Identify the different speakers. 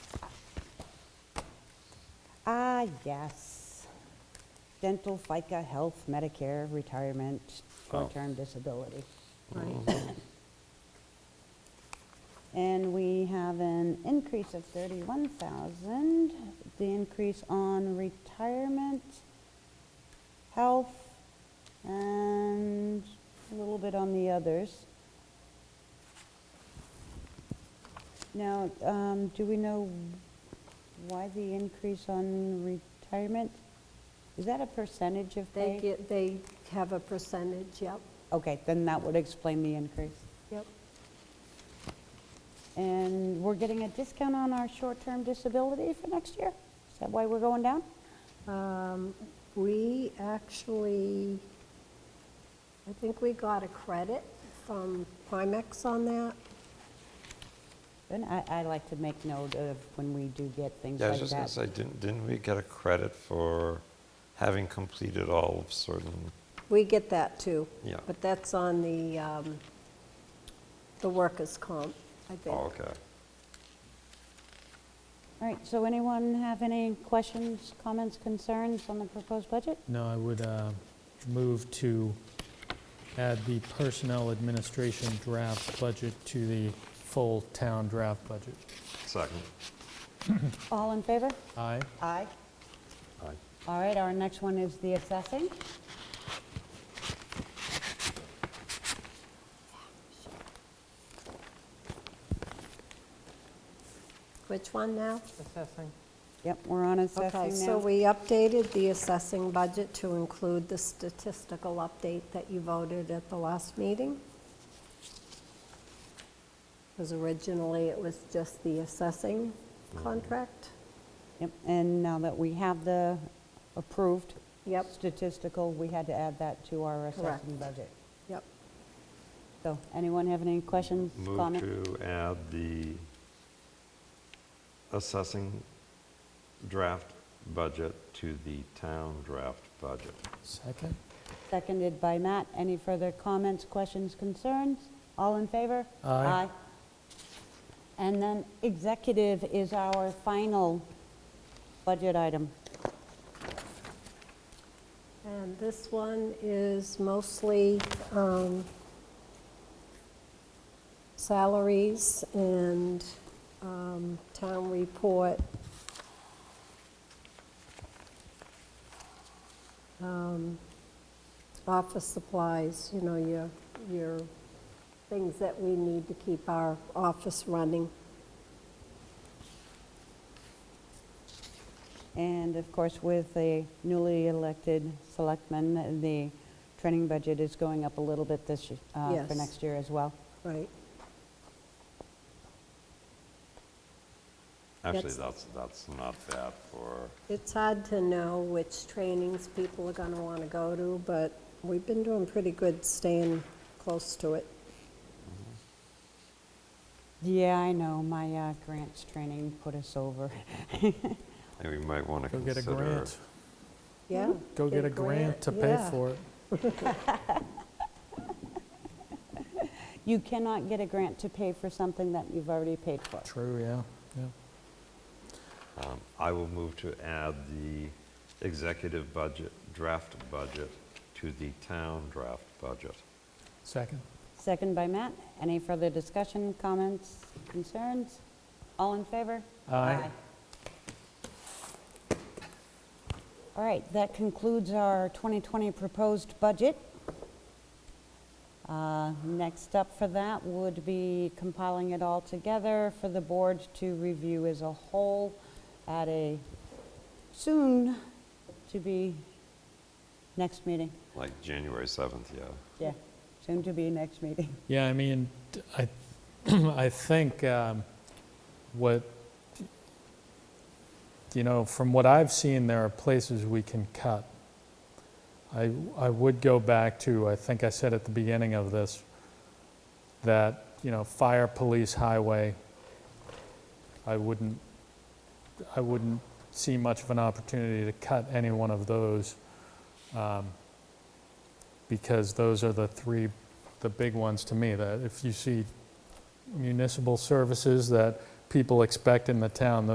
Speaker 1: Ah, yes. Dental, FICA, health, Medicare, retirement,
Speaker 2: Wow.
Speaker 1: short-term disability.
Speaker 3: Right.
Speaker 1: And we have an increase of 31,000. The increase on retirement, health, and a little bit on the others. Now, um, do we know why the increase on retirement? Is that a percentage of pay?
Speaker 3: They get, they have a percentage, yep,
Speaker 1: Okay, then that would explain the increase.
Speaker 3: yep.
Speaker 1: And we're getting a discount on our short-term disability for next year? Is that why we're going down?
Speaker 3: Um, We actually, I think we got a credit from Primex on that.
Speaker 1: And I, I like to make note of when we do get things
Speaker 2: Yeah, I was
Speaker 1: like
Speaker 2: just going to say,
Speaker 1: that.
Speaker 2: didn't, didn't we get a credit for having completed all of certain,
Speaker 3: We get that too.
Speaker 2: Yeah.
Speaker 3: But that's on the, um, the workers' comp, I think.
Speaker 2: oh, okay.
Speaker 1: All right, so anyone have any questions, comments, concerns on the proposed budget?
Speaker 4: No, I would uh, move to add the personnel administration draft budget to the full town draft budget.
Speaker 2: Second.
Speaker 1: All in favor?
Speaker 4: Aye?
Speaker 1: Aye.
Speaker 2: Aye.
Speaker 1: All right, our next one is the assessing.
Speaker 3: Which one now?
Speaker 5: assessing.
Speaker 1: Yep, we're on
Speaker 3: Okay,
Speaker 1: assessing
Speaker 3: so
Speaker 1: now.
Speaker 3: we updated the assessing budget to include the statistical update that you voted at the last meeting. Because originally it was just the assessing contract.
Speaker 1: Yep, And now that we have the approved
Speaker 3: Yep,
Speaker 1: statistical, we had to add that to our
Speaker 3: Correct.
Speaker 1: assessing budget.
Speaker 3: yep.
Speaker 1: So anyone have any questions,
Speaker 2: Move
Speaker 1: comments?
Speaker 2: to add the assessing draft budget to the town draft budget.
Speaker 4: Second?
Speaker 1: Seconded by Matt. Any further comments, questions, concerns? All in favor?
Speaker 4: Aye.
Speaker 1: And then executive is our final budget item.
Speaker 3: And this one is mostly um, salaries and um, town report. Um, Office supplies, you know, your, your things that we need to keep our office running.
Speaker 1: And of course, with the newly elected selectmen, the training budget is going up a little bit this, y- uh, for
Speaker 3: Yes.
Speaker 1: next year as well.
Speaker 3: Right.
Speaker 2: Actually,
Speaker 3: That's-
Speaker 2: that's, that's not bad for,
Speaker 3: It's hard to know which trainings people are going to want to go to, but we've been doing pretty good staying close to it.
Speaker 1: Yeah, I know, my uh, grants training put us over.
Speaker 2: and we might want to
Speaker 4: Go get
Speaker 2: consider.
Speaker 4: a grant.
Speaker 3: Yeah?
Speaker 4: Go get a grant to pay
Speaker 3: yeah.
Speaker 4: for it.
Speaker 1: You cannot get a grant to pay for something that you've already paid for.
Speaker 4: True, yeah, yeah.
Speaker 2: Um, I will move to add the executive budget, draft budget to the town draft budget.
Speaker 4: Second?
Speaker 1: Second by Matt. Any further discussion, comments, concerns? All in favor?
Speaker 4: Aye.
Speaker 1: All right, that concludes our 2020 proposed budget. Uh, Next up for that would be compiling it all together for the board to review as a whole at a soon-to-be next meeting.
Speaker 2: Like January 7th, yeah.
Speaker 1: Yeah, soon-to-be next meeting.
Speaker 4: Yeah, I mean, t- I, I think um, what, you know, from what I've seen, there are places we can cut. I, I would go back to, I think I said at the beginning of this, that, you know, fire, police, highway, I wouldn't, I wouldn't see much of an opportunity to cut any one of those um, because those are the three the big ones to me, that if you see municipal services that people expect in the town,